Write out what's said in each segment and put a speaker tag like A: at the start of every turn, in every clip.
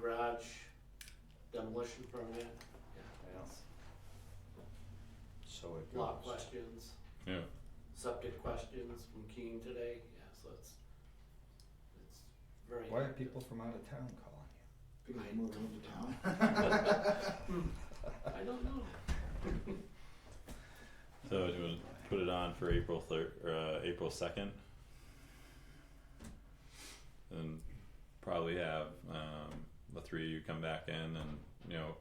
A: garage demolition permit,
B: So it goes.
A: lot questions.
C: Yeah.
A: Septic questions from Keen today, yeah, so it's, it's very.
B: Why are people from out of town calling you?
D: People
A: I
D: moving into town.
A: I don't know,
C: So do you wanna put it on for April third, or uh, April second? And probably have, um, the three of you come back in and, you know,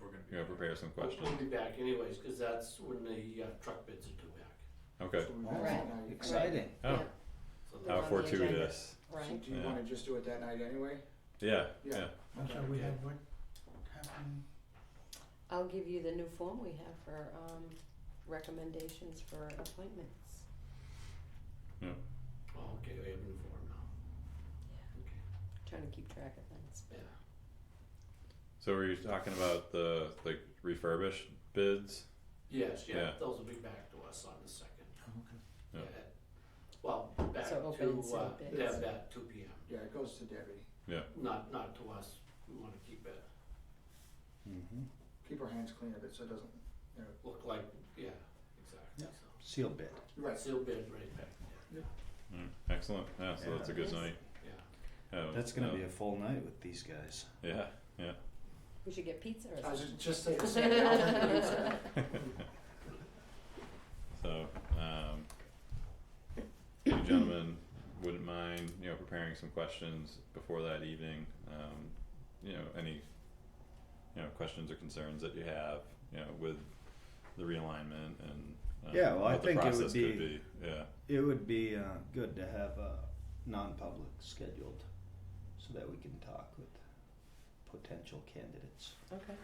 E: We're gonna be.
C: you know, prepare some
A: We'll-
C: questions,
A: we'll be back anyways, cause that's when the uh, truck bids are due back.
C: okay,
D: So we've
B: Oh,
D: got that night.
B: Exciting.
C: oh,
A: So
C: how
A: the-
F: for- the agenda.
C: fortuitous,
D: So
F: Right.
D: do you
C: Yeah.
D: wanna just do it that night anyway?
C: yeah,
D: Yeah.
C: yeah,
D: Okay,
E: So we
D: okay.
E: have what happened?
F: I'll give you the new form we have for, um, recommendations for appointments.
A: Oh, okay, we have new form now, okay,
F: Trying to keep track of things.
A: yeah.
C: so were you talking about the, like refurbished bids?
A: Yes, yeah,
C: Yeah.
A: those will be back to us on the second.
E: Oh, Okay.
C: Yeah.
A: Well, back
F: So open
A: to, uh,
F: sealed bids.
A: yeah, back two P M,
D: Yeah, it goes to Debbie.
A: not, not to us, we wanna keep it,
B: Mm-hmm.
D: Keep her hands clean of it so it doesn't, you know,
A: look like, yeah, exactly,
B: Yeah.
A: so.
B: Seal bid.
D: right,
A: Sealed bid right back,
C: Mm, excellent, yeah, so that's a good
F: Yes.
C: night,
A: yeah,
C: Oh,
B: That's gonna
C: uh,
B: be a full night with these guys.
C: Yeah,
F: We should get pizza or
D: I was
F: something.
D: just, just saying, the same thing. I'll have to do that.
C: So, um, you gentlemen wouldn't mind, you know, preparing some questions before that evening, um, you know, any, you know, questions or concerns that you have, you know, with the realignment and, um,
B: Yeah, well, I
C: what the
B: think it would
C: process
B: be-
C: could be, yeah,
B: It would be uh, good to have a non-public scheduled, so that we can talk with potential candidates
F: Okay.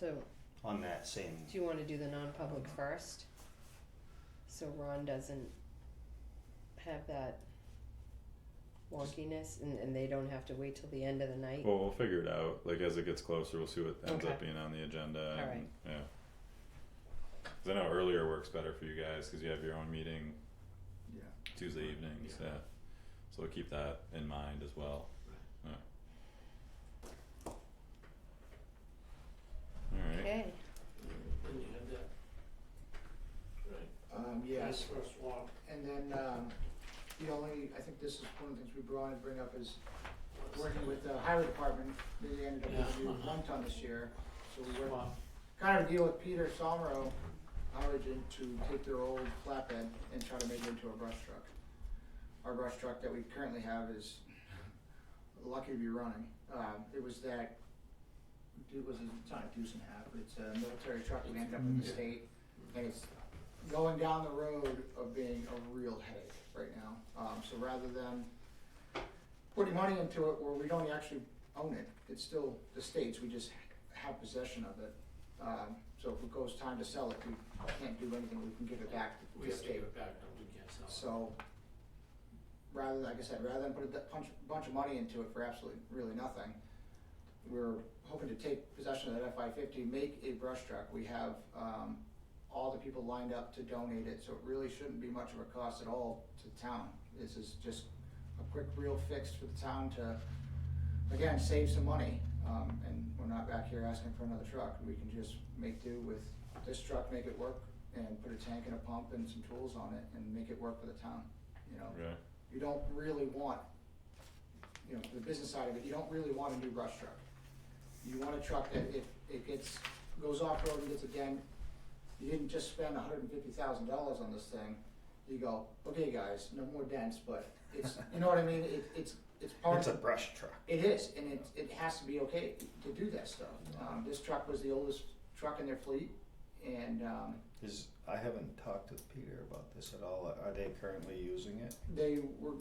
F: So,
B: on that same.
F: do you wanna do the non-public first? So Ron doesn't have that wonkiness and, and they don't have to wait till the end of the night?
C: well, we'll figure it out, like, as it gets closer, we'll see what ends up
F: Okay.
C: being on the agenda
F: All
C: and, yeah. 'Cause I know earlier works better for you guys, cause you have your own meeting
D: Yeah.
C: Tuesday evenings,
A: Yeah.
C: yeah. So we'll keep that in mind as well.
A: Right.
C: Alright,
F: Okay,
A: and you have that. Right.
D: Um, yes.
A: First one,
D: And then, um, the only, I think this is one of the things we brought and bring up is working with the highway department, they ended up with a new one ton this year. So we worked,
A: Wow.
D: kind of a deal with Peter Somro, our agent, to take their old flatbed and try to make it into a brush truck. Our brush truck that we currently have is lucky to be running. Um, it was that, it was, it's not a deuce and a half, but it's a military truck we ended up in the
B: Mm.
D: state. And it's going down the road of being a real headache right now. Um, so rather than putting money into it where we don't actually own it, it's still the state's, we just have possession of it. Um, so if it goes time to sell it, we can't do anything, we can give it back to
A: we
D: the
A: have to give
D: state.
A: it back, don't we, can't sell it.
D: So, rather, like I said, rather than put a d- punch, bunch of money into it for absolutely, really nothing, we're hoping to take possession of that FI fifty, make a brush truck. We have, um, all the people lined up to donate it, so it really shouldn't be much of a cost at all to town. This is just a quick real fix for the town to, again, save some money. Um, and we're not back here asking for another truck. We can just make do with this truck, make it work and put a tank and a pump and some tools on it and make it work for the town, you know?
C: okay,
D: you don't really want, you know, the business side of it, you don't really want a new brush truck. You want a truck that if it gets, goes off-road and gets a dent, you didn't just spend hundred and fifty thousand dollars on this thing. You go, okay, guys, no more dents, but it's, you know what I mean, it, it's, it's part of.
B: It's a brush truck.
D: It is, and it, it has to be okay to do that stuff. Um, this truck was the oldest truck in their fleet, and, um,
B: Is I haven't talked with Peter about this at all. Are they currently using it?
D: they were,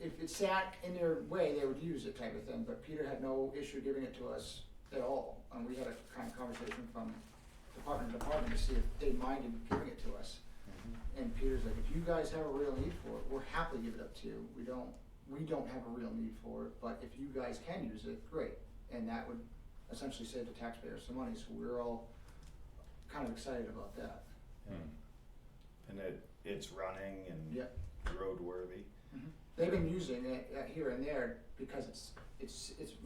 D: if it sat in their way, they would use it type of thing, but Peter had no issue giving it to us at all. And we had a kind of conversation from department to department to see if they minded giving it to us.
B: Mm-hmm.
D: And Peter's like, if you guys have a real need for it, we're happy to give it up to you. We don't, we don't have a real need for it, but if you guys can use it, great. And that would essentially save the taxpayers some money, so we're all kind of excited about that.
C: Hmm.
B: And it it's running and
D: Yeah.
B: roadworthy.
D: Mhm. They've been using it uh, here and there because it's, it's, it's